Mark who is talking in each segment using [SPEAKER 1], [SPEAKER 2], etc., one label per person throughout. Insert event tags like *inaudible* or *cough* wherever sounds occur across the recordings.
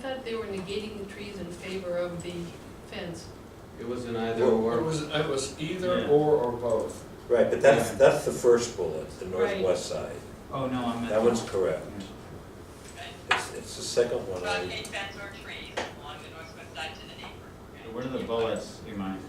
[SPEAKER 1] thought they were negating the trees in favor of the fence.
[SPEAKER 2] It was an either
[SPEAKER 3] Well, It
[SPEAKER 2] or.
[SPEAKER 3] was, it was either
[SPEAKER 4] Yeah.
[SPEAKER 3] or or both.
[SPEAKER 5] Right, but that's,
[SPEAKER 4] Yeah.
[SPEAKER 5] that's the first bullet, the
[SPEAKER 1] Right.
[SPEAKER 5] northwest side.
[SPEAKER 4] Oh, no, I meant.
[SPEAKER 5] That one's correct.
[SPEAKER 6] Okay.
[SPEAKER 5] It's, it's the second one.
[SPEAKER 3] uh,
[SPEAKER 6] About
[SPEAKER 5] I-
[SPEAKER 6] eight fence or trees along the northwest side to the neighbor. okay?
[SPEAKER 4] What are the bullets, you mind?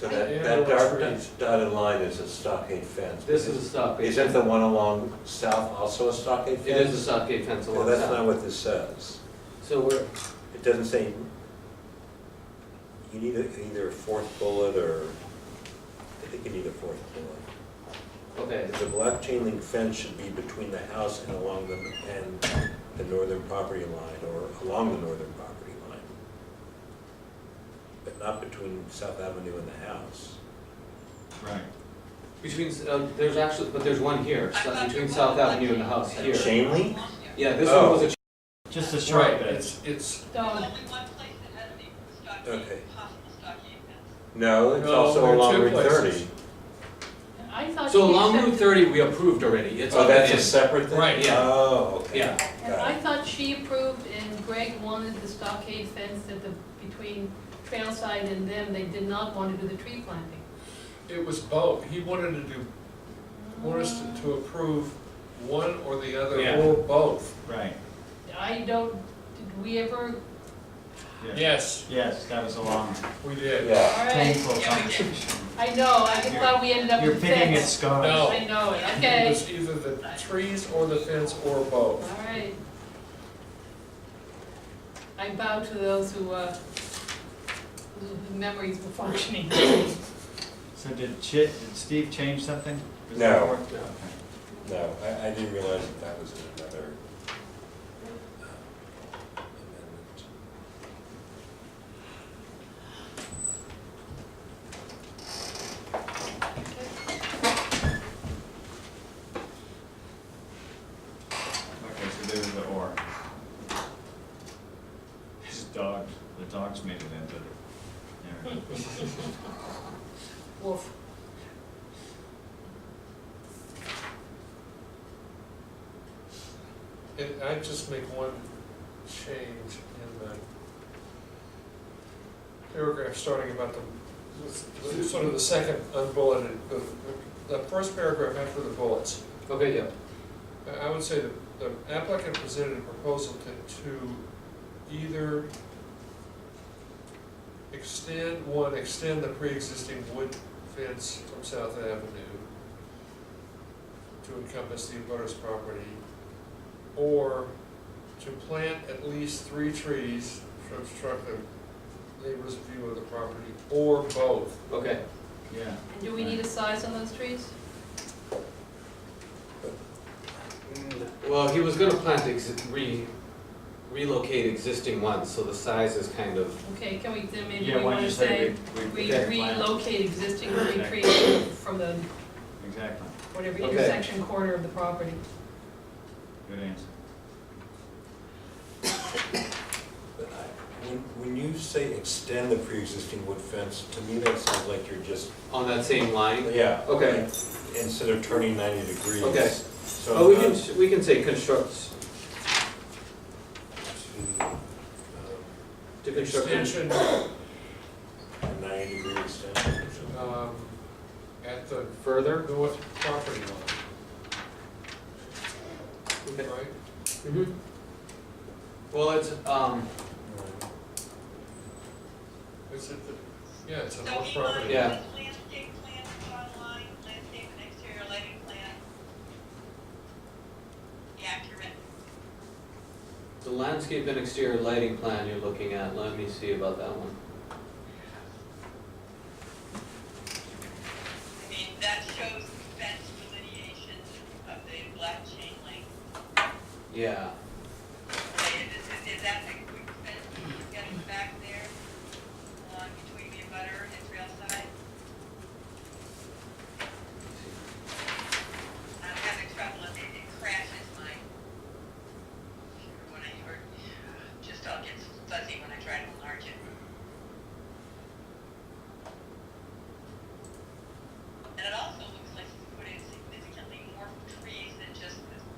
[SPEAKER 5] So
[SPEAKER 3] Yeah,
[SPEAKER 5] that,
[SPEAKER 3] no
[SPEAKER 5] that dark
[SPEAKER 3] trees.
[SPEAKER 5] dotted line is a stockade fence.
[SPEAKER 2] This is a stockade.
[SPEAKER 5] Isn't the
[SPEAKER 2] fence.
[SPEAKER 5] one along south also a stockade
[SPEAKER 2] It
[SPEAKER 5] fence?
[SPEAKER 2] is a stockade fence
[SPEAKER 5] Well,
[SPEAKER 2] along
[SPEAKER 5] that's not
[SPEAKER 2] that.
[SPEAKER 5] what this says.
[SPEAKER 2] So we're,
[SPEAKER 5] It doesn't say, you need a- either a fourth bullet or, I think you need a fourth bullet.
[SPEAKER 2] okay,
[SPEAKER 5] The black chain link fence should be between the house and along the, and the northern property line, or along the northern property line. But not between South Avenue and the house.
[SPEAKER 4] Right.
[SPEAKER 2] which means, uh, there's actually, but there's one here,
[SPEAKER 6] I
[SPEAKER 2] so-
[SPEAKER 6] thought
[SPEAKER 2] between
[SPEAKER 6] there
[SPEAKER 2] South
[SPEAKER 6] was a
[SPEAKER 2] Avenue and the
[SPEAKER 6] black
[SPEAKER 2] house
[SPEAKER 6] chain
[SPEAKER 2] here.
[SPEAKER 6] fence
[SPEAKER 5] Chain link?
[SPEAKER 6] along here.
[SPEAKER 2] Yeah, this one
[SPEAKER 5] Oh.
[SPEAKER 2] was a,
[SPEAKER 4] Just a
[SPEAKER 3] Right,
[SPEAKER 4] short bit.
[SPEAKER 3] it's, it's,
[SPEAKER 6] There's
[SPEAKER 1] So,
[SPEAKER 6] only one place that has a
[SPEAKER 5] Okay.
[SPEAKER 6] stockade, possible stockade fence.
[SPEAKER 5] No, it's
[SPEAKER 3] No,
[SPEAKER 5] also
[SPEAKER 3] there are
[SPEAKER 5] along
[SPEAKER 3] two
[SPEAKER 5] Route
[SPEAKER 3] places.
[SPEAKER 5] thirty.
[SPEAKER 1] I thought.
[SPEAKER 2] so
[SPEAKER 1] she
[SPEAKER 2] along
[SPEAKER 1] said-
[SPEAKER 2] Route thirty, we approved already, it's
[SPEAKER 5] Oh,
[SPEAKER 2] on the
[SPEAKER 5] that's a
[SPEAKER 2] end.
[SPEAKER 5] separate thing?
[SPEAKER 3] Right.
[SPEAKER 2] Yeah.
[SPEAKER 5] Oh, okay.
[SPEAKER 2] Yeah,
[SPEAKER 1] I
[SPEAKER 5] Got it.
[SPEAKER 1] thought she approved and Greg wanted the stockade fence that the, between trail side and them, they did not want to do the tree planting.
[SPEAKER 3] it was both. He wanted to do, wanted us to- to approve one or the other
[SPEAKER 4] Yeah.
[SPEAKER 3] or both.
[SPEAKER 4] Right,
[SPEAKER 1] I don't, did we ever,
[SPEAKER 4] yeah.
[SPEAKER 3] Yes,
[SPEAKER 4] Yes, that was a long,
[SPEAKER 3] we did.
[SPEAKER 5] Yeah.
[SPEAKER 1] all right,
[SPEAKER 4] painful
[SPEAKER 6] Yeah, we did.
[SPEAKER 4] conversation.
[SPEAKER 1] I know, I just thought we ended up
[SPEAKER 4] You're
[SPEAKER 1] with
[SPEAKER 4] picking at
[SPEAKER 1] fence.
[SPEAKER 4] scars.
[SPEAKER 3] No.
[SPEAKER 1] I know it,
[SPEAKER 3] It
[SPEAKER 1] okay,
[SPEAKER 3] was either the trees or the fence or both.
[SPEAKER 1] all right. I bow to those who, uh, whose memories were functioning.
[SPEAKER 4] So did Chit, did Steve change something? Was
[SPEAKER 5] No.
[SPEAKER 4] that work?
[SPEAKER 2] No.
[SPEAKER 4] Okay.
[SPEAKER 5] No, I, I didn't realize that that was in another um, amendment.
[SPEAKER 4] Okay, so there was the or. His dog, the dogs made it into the narrative.
[SPEAKER 1] Wolf.
[SPEAKER 3] And I just make one change in the paragraph starting about the, sort of the second unbulleted, the, the first paragraph after the bullets.
[SPEAKER 2] okay, yeah,
[SPEAKER 3] I- I would say that the applicant presented a proposal to, to either extend, one, extend the pre-existing wood fence from South Avenue to encompass the abutters property, or to plant at least three trees to obstruct the neighbor's view of the property, or both.
[SPEAKER 2] okay.
[SPEAKER 4] Yeah,
[SPEAKER 1] And do we need a size on those trees?
[SPEAKER 2] Well, he was gonna plant, exi- re, relocate existing ones, so the size is kind of,
[SPEAKER 1] Okay, can we, then maybe
[SPEAKER 4] yeah,
[SPEAKER 1] we
[SPEAKER 4] why
[SPEAKER 1] want
[SPEAKER 4] don't you
[SPEAKER 1] to say,
[SPEAKER 4] say we, we.
[SPEAKER 1] we
[SPEAKER 2] okay.
[SPEAKER 1] relocate existing
[SPEAKER 4] *laughs* Okay.
[SPEAKER 1] trees from the,
[SPEAKER 4] Exactly,
[SPEAKER 1] whatever
[SPEAKER 2] Okay.
[SPEAKER 1] intersection corner of the property.
[SPEAKER 4] good answer.
[SPEAKER 5] But I- When, when you say extend the pre-existing wood fence, to me that sounds like you're just,
[SPEAKER 2] on that same line.
[SPEAKER 5] yeah.
[SPEAKER 2] Okay.
[SPEAKER 5] Instead of turning ninety degrees.
[SPEAKER 2] Okay.
[SPEAKER 5] So
[SPEAKER 2] Oh, we
[SPEAKER 5] not
[SPEAKER 2] can, we can say constructs,
[SPEAKER 5] to, um,
[SPEAKER 2] to construct.
[SPEAKER 3] Extension,
[SPEAKER 5] uh, a ninety degree extension or something.
[SPEAKER 3] um, at the
[SPEAKER 2] Further?
[SPEAKER 3] north property line,
[SPEAKER 2] Okay.
[SPEAKER 3] right?
[SPEAKER 2] Mhm. Well, it's, um,
[SPEAKER 3] Is it the, yeah, it's
[SPEAKER 6] So
[SPEAKER 3] a
[SPEAKER 6] he
[SPEAKER 3] north
[SPEAKER 6] wanted
[SPEAKER 3] property.
[SPEAKER 2] Yeah.
[SPEAKER 6] landscape plan, online, landscape and exterior lighting plan. Accurate.
[SPEAKER 2] the landscape and exterior lighting plan you're looking at, let me see about that one.
[SPEAKER 6] I mean, that shows fence delineation of the black chain link.
[SPEAKER 2] Yeah,
[SPEAKER 6] Is, is- is that the um,